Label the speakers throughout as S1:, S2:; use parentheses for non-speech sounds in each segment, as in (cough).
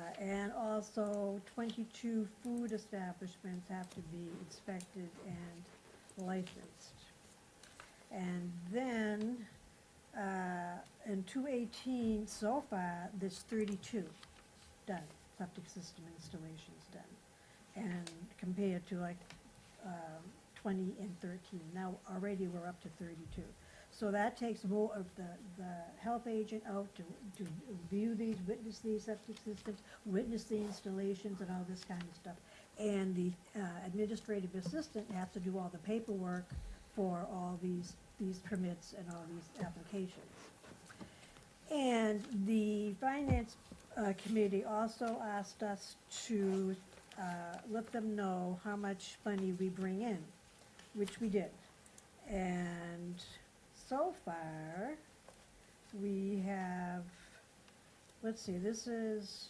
S1: Uh, And also, twenty-two food establishments have to be inspected and licensed. And then, uh, in two eighteen, so far, there's thirty-two done, septic system installations done. And compared to like, um, twenty and thirteen, now already we're up to thirty-two. So that takes more of the, the health agent out to, to view these, witness these septic systems, witness the installations and all this kind of stuff. And the uh, administrative assistant has to do all the paperwork for all these, these permits and all these applications. And the finance uh, committee also asked us to uh, let them know how much money we bring in, which we did. And so far, we have, let's see, this is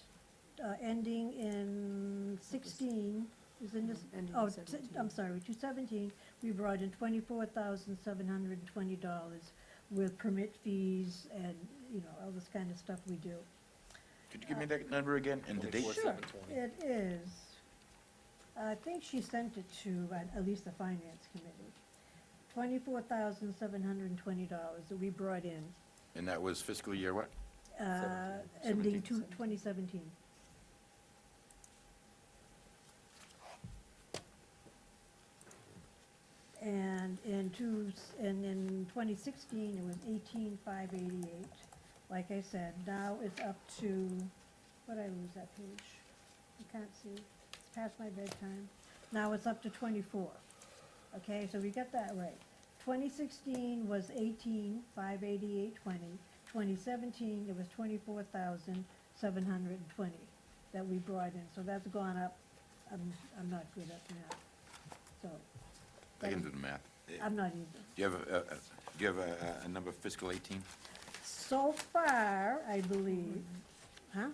S1: uh, ending in sixteen, is in this,
S2: Ending in
S1: oh, t-
S2: 17.
S1: I'm sorry, two seventeen, we brought in twenty-four thousand seven hundred and twenty dollars with permit fees and, you know, all this kind of stuff we do.
S3: Could you give me that number again and the date?
S4: Twenty-four,
S1: Sure,
S4: seven twenty.
S1: it is. I think she sent it to uh, at least the finance committee. Twenty-four thousand seven hundred and twenty dollars that we brought in,
S3: And that was fiscal year what?
S1: uh,
S3: Seventeen.
S1: ending
S3: Seventeen.
S1: two, twenty seventeen. And in two, s- and in twenty sixteen, it was eighteen five eighty-eight. Like I said, now it's up to, what did I lose that page? You can't see, it's past my bedtime. Now it's up to twenty-four. Okay, so we got that right. Twenty sixteen was eighteen five eighty-eight twenty. Twenty seventeen, it was twenty-four thousand seven hundred and twenty that we brought in, so that's gone up. I'm, I'm not good at math, so.
S3: I can do the math. Do
S1: I'm not either.
S3: you have, a- a- a- do you have a, a- a number fiscal 18?
S1: So far, I believe, huh?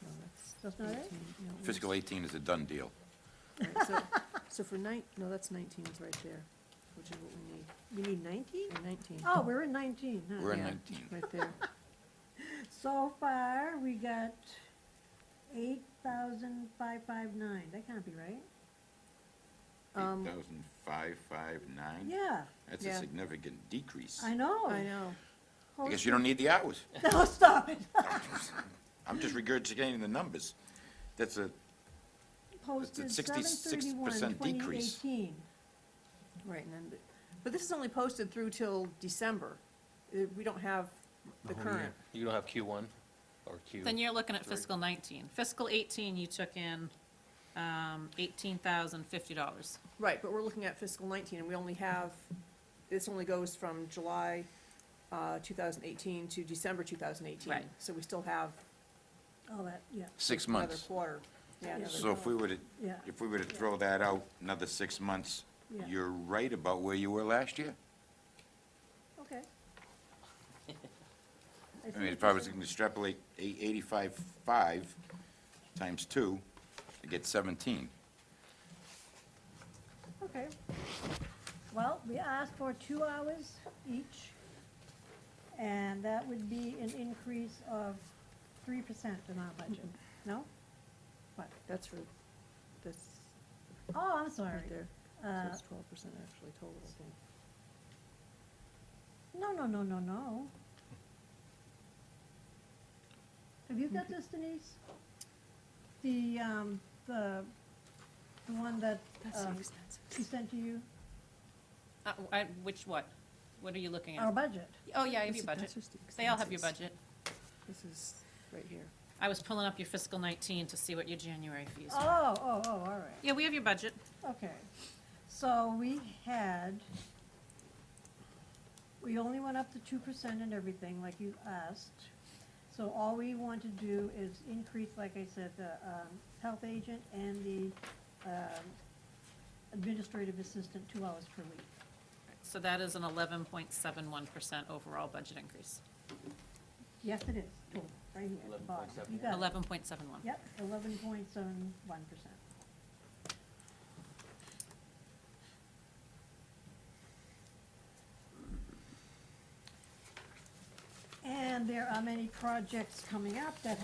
S2: No, that's
S1: That's not it?
S2: 18, no, it
S3: Fiscal
S2: was-
S3: 18 is a done deal.
S2: right, so- So for nine, no, that's nineteen is right there, which is what we need,
S1: We need nineteen?
S2: Yeah, nineteen.
S1: Oh, we're in nineteen, huh?
S3: We're in
S2: Yeah,
S3: 19.
S2: Right there,
S1: So far, we got eight thousand five five nine, that can't be right?
S2: Um,
S3: 8,559?
S1: Yeah,
S3: That's a
S2: yeah.
S3: significant decrease.
S1: I
S5: Oh.
S1: know.
S2: I know,
S3: I guess you don't need the hours.
S1: (laughs) No, stop
S3: (laughs)
S1: it.
S3: I'm just regurgitating the numbers. That's a,
S1: Posted seven
S3: 66%
S1: thirty-one, twenty
S3: decrease.
S1: eighteen.
S2: right, and then, but- but this is only posted through till December, Uh, we don't have the current.
S4: You don't have Q one or Q?
S5: Then you're looking at fiscal nineteen. Fiscal eighteen, you took in, um, eighteen thousand fifty dollars.
S2: Right, but we're looking at fiscal nineteen, and we only have, this only goes from July, uh, two thousand eighteen to December two thousand eighteen.
S5: Right.
S2: So we still have
S1: All that, yeah,
S3: six
S2: another
S3: months.
S2: quarter. Yeah,
S1: Yeah.
S2: another-
S3: So if we were to,
S1: yeah,
S3: if we were to throw that out another six months,
S1: Yeah.
S3: you're right about where you were last year.
S1: okay.
S3: I
S1: see
S3: mean,
S1: what
S3: if I
S1: you're
S3: was
S1: saying.
S3: gonna extrapolate eight- eighty-five, five times two, I get seventeen.
S1: Okay. Well, we asked for two hours each, and that would be an increase of three percent in our budget. No? What?
S2: That's for, that's
S1: Oh, I'm sorry.
S2: right there, so
S1: Uh,
S2: it's twelve percent actually total, I think.
S1: no, no, no, no, no. Have you got this Denise? The, um, the, the one that,
S2: uh,
S1: um, she sent to you,
S5: Uh, I, which what? What are you looking
S1: our
S5: at?
S1: budget.
S5: Oh, yeah, I have
S2: This
S5: your
S2: is-
S5: budget.
S2: that's just the
S5: They all have your
S2: expenses.
S5: budget.
S2: This is right here.
S5: I was pulling up your fiscal nineteen to see what your January fees were.
S1: Oh, oh, oh, all right.
S5: Yeah, we have your budget.
S1: Okay, so we had, we only went up to two percent and everything, like you asked. So all we want to do is increase, like I said, the, um, health agent and the, um, administrative assistant two hours per week.
S5: So that is an eleven point seven one percent overall budget increase.
S1: Yes, it is, Boom, right here at the bottom. You got it.
S5: Eleven point seven one.
S1: Yep, eleven point seven one percent. And there are many projects coming up that